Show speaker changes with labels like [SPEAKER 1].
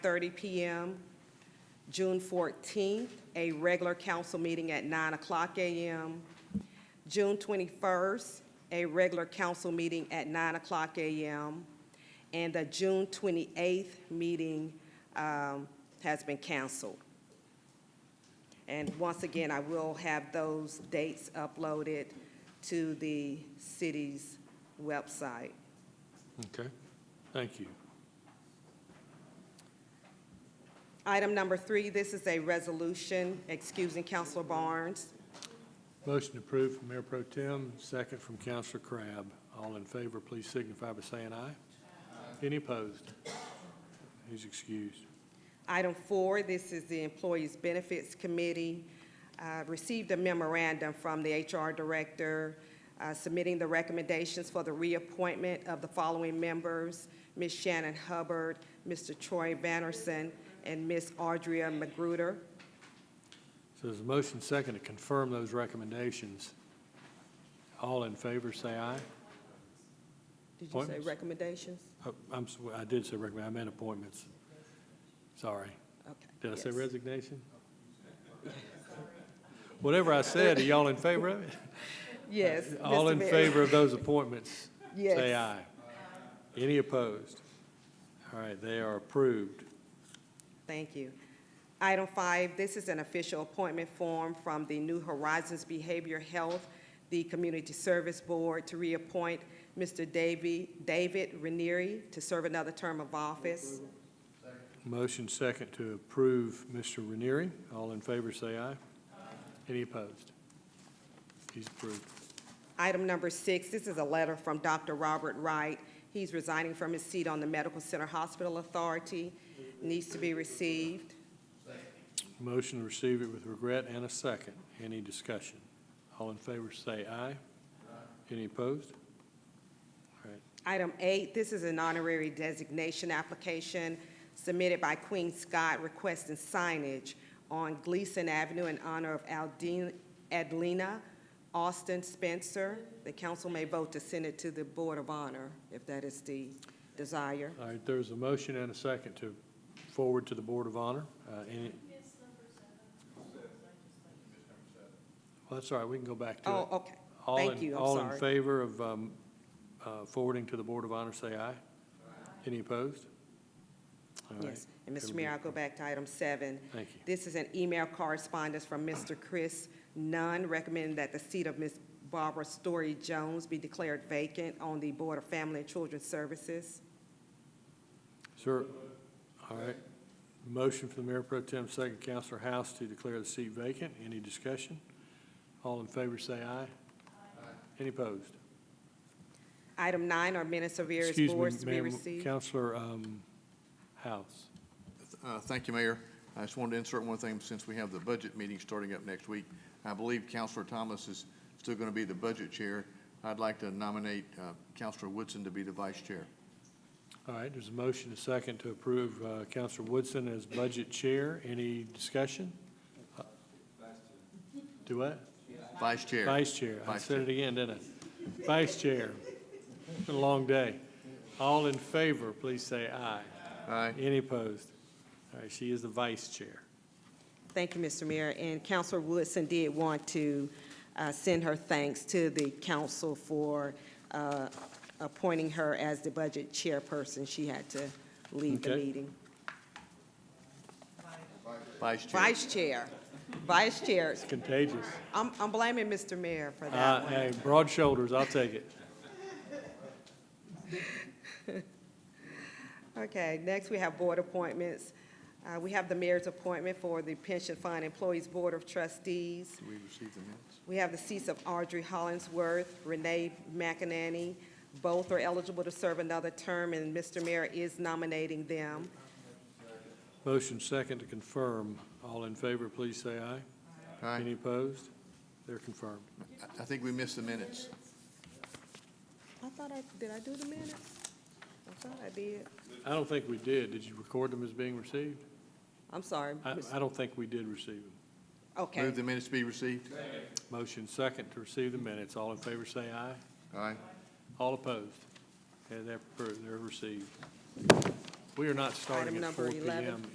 [SPEAKER 1] thirty PM. June fourteenth, a regular council meeting at nine o'clock AM. June twenty-first, a regular council meeting at nine o'clock AM. And the June twenty-eighth meeting um, has been canceled. And once again, I will have those dates uploaded to the city's website.
[SPEAKER 2] Okay, thank you.
[SPEAKER 1] Item number three, this is a resolution excusing Counselor Barnes.
[SPEAKER 2] Motion approved from Mayor Pro Tem, second from Counselor Crab. All in favor, please signify by saying aye. Any opposed? He's excused.
[SPEAKER 1] Item four, this is the Employees Benefits Committee. Uh, Received a memorandum from the HR Director uh, submitting the recommendations for the reappointment of the following members, Ms. Shannon Hubbard, Mr. Troy Vannerson, and Ms. Audria Magruder.
[SPEAKER 2] So there's a motion second to confirm those recommendations. All in favor, say aye.
[SPEAKER 1] Did you say
[SPEAKER 2] Appointments?
[SPEAKER 1] recommendations?
[SPEAKER 2] Oh, I'm, s- I did say recommend, I meant appointments. Sorry.
[SPEAKER 1] Okay.
[SPEAKER 2] Did I say
[SPEAKER 1] yes.
[SPEAKER 2] resignation? Whatever I said, are y'all in favor of it?
[SPEAKER 1] Yes.
[SPEAKER 2] All
[SPEAKER 1] Mr.
[SPEAKER 2] in
[SPEAKER 1] Mayor.
[SPEAKER 2] favor of those appointments? Say
[SPEAKER 1] Yes.
[SPEAKER 2] aye. Any opposed? All right, they are approved.
[SPEAKER 1] Thank you. Item five, this is an official appointment form from the New Horizons Behavior Health, the Community Service Board, to reappoint Mr. Davy, David Ranieri to serve another term of office.
[SPEAKER 2] Motion second to approve Mr. Ranieri. All in favor, say aye. Any opposed? He's approved.
[SPEAKER 1] Item number six, this is a letter from Dr. Robert Wright. He's resigning from his seat on the Medical Center Hospital Authority, needs to be received.
[SPEAKER 2] Motion to receive it with regret and a second. Any discussion? All in favor, say aye. Any opposed? All right,
[SPEAKER 1] Item eight, this is an honorary designation application submitted by Queen Scott requesting signage on Gleason Avenue in honor of Aldine- Adelina Austin Spencer. The council may vote to send it to the Board of Honor if that is the desire.
[SPEAKER 2] all right, there's a motion and a second to forward to the Board of Honor. Uh, Any? Well, that's all right, we can go back to it.
[SPEAKER 1] Oh, okay.
[SPEAKER 2] All
[SPEAKER 1] Thank
[SPEAKER 2] in-
[SPEAKER 1] you, I'm
[SPEAKER 2] All in
[SPEAKER 1] sorry.
[SPEAKER 2] favor of um, uh, forwarding to the Board of Honor, say aye. Any opposed? All right.
[SPEAKER 1] Yes. And Mr.
[SPEAKER 2] It'll
[SPEAKER 1] Mayor,
[SPEAKER 2] be-
[SPEAKER 1] I'll go back to item seven.
[SPEAKER 2] Thank you.
[SPEAKER 1] This is an email correspondence from Mr. Chris Nunn recommending that the seat of Ms. Barbara Story Jones be declared vacant on the Board of Family and Children's Services.
[SPEAKER 2] Sir, all right. Motion for the Mayor Pro Tem, second Counselor House to declare the seat vacant. Any discussion? All in favor, say aye. Any opposed?
[SPEAKER 1] Item nine are minutes of various
[SPEAKER 2] Excuse
[SPEAKER 1] boards
[SPEAKER 2] me,
[SPEAKER 1] to be
[SPEAKER 2] ma'am,
[SPEAKER 1] received.
[SPEAKER 2] Counselor um, House.
[SPEAKER 3] Uh, Thank you, Mayor. I just wanted to insert one thing, since we have the budget meeting starting up next week. I believe Counselor Thomas is still going to be the budget chair. I'd like to nominate uh, Counselor Woodson to be the vice chair.
[SPEAKER 2] All right, there's a motion, a second, to approve uh, Counselor Woodson as Budget Chair. Any discussion? Do what?
[SPEAKER 3] Vice chair.
[SPEAKER 2] Vice Chair. I
[SPEAKER 3] Vice
[SPEAKER 2] said it again, didn't I? Vice Chair. It's Been a long day. All in favor, please say aye.
[SPEAKER 3] Aye.
[SPEAKER 2] Any opposed? All right, she is the Vice Chair.
[SPEAKER 1] Thank you, Mr. Mayor. And Counselor Woodson did want to uh, send her thanks to the council for uh, appointing her as the budget chairperson. She had to leave the
[SPEAKER 2] Okay.
[SPEAKER 1] meeting.
[SPEAKER 3] Vice chair.
[SPEAKER 1] Vice chair, vice chair.
[SPEAKER 2] Contagious.
[SPEAKER 1] I'm I'm blaming Mr. Mayor for
[SPEAKER 2] Uh,
[SPEAKER 1] that one.
[SPEAKER 2] Hey, broad shoulders, I'll take it.
[SPEAKER 1] Okay, next we have board appointments. Uh, We have the mayor's appointment for the Pension Fund Employees Board of Trustees.
[SPEAKER 3] Do we receive the minutes?
[SPEAKER 1] We have the seats of Audrey Hollingsworth, Renee McEnany. Both are eligible to serve another term, and Mr. Mayor is nominating them.
[SPEAKER 2] Motion second to confirm. All in favor, please say aye. Any
[SPEAKER 3] Aye.
[SPEAKER 2] opposed? They're confirmed.
[SPEAKER 3] I- I think we missed the minutes.
[SPEAKER 1] I thought I, did I do the minutes? I thought I did.
[SPEAKER 2] I don't think we did. Did you record them as being received?
[SPEAKER 1] I'm sorry.
[SPEAKER 2] I,
[SPEAKER 1] Ms.
[SPEAKER 2] I don't think we did receive them.
[SPEAKER 1] Okay,
[SPEAKER 3] Move the minutes to be received.
[SPEAKER 2] Motion second to receive the minutes. All in favor, say aye.
[SPEAKER 3] Aye.
[SPEAKER 2] All opposed? Okay, they're, appro- they're received. We are not starting
[SPEAKER 1] Item
[SPEAKER 2] at
[SPEAKER 1] number
[SPEAKER 2] four P
[SPEAKER 1] 11.
[SPEAKER 2] M.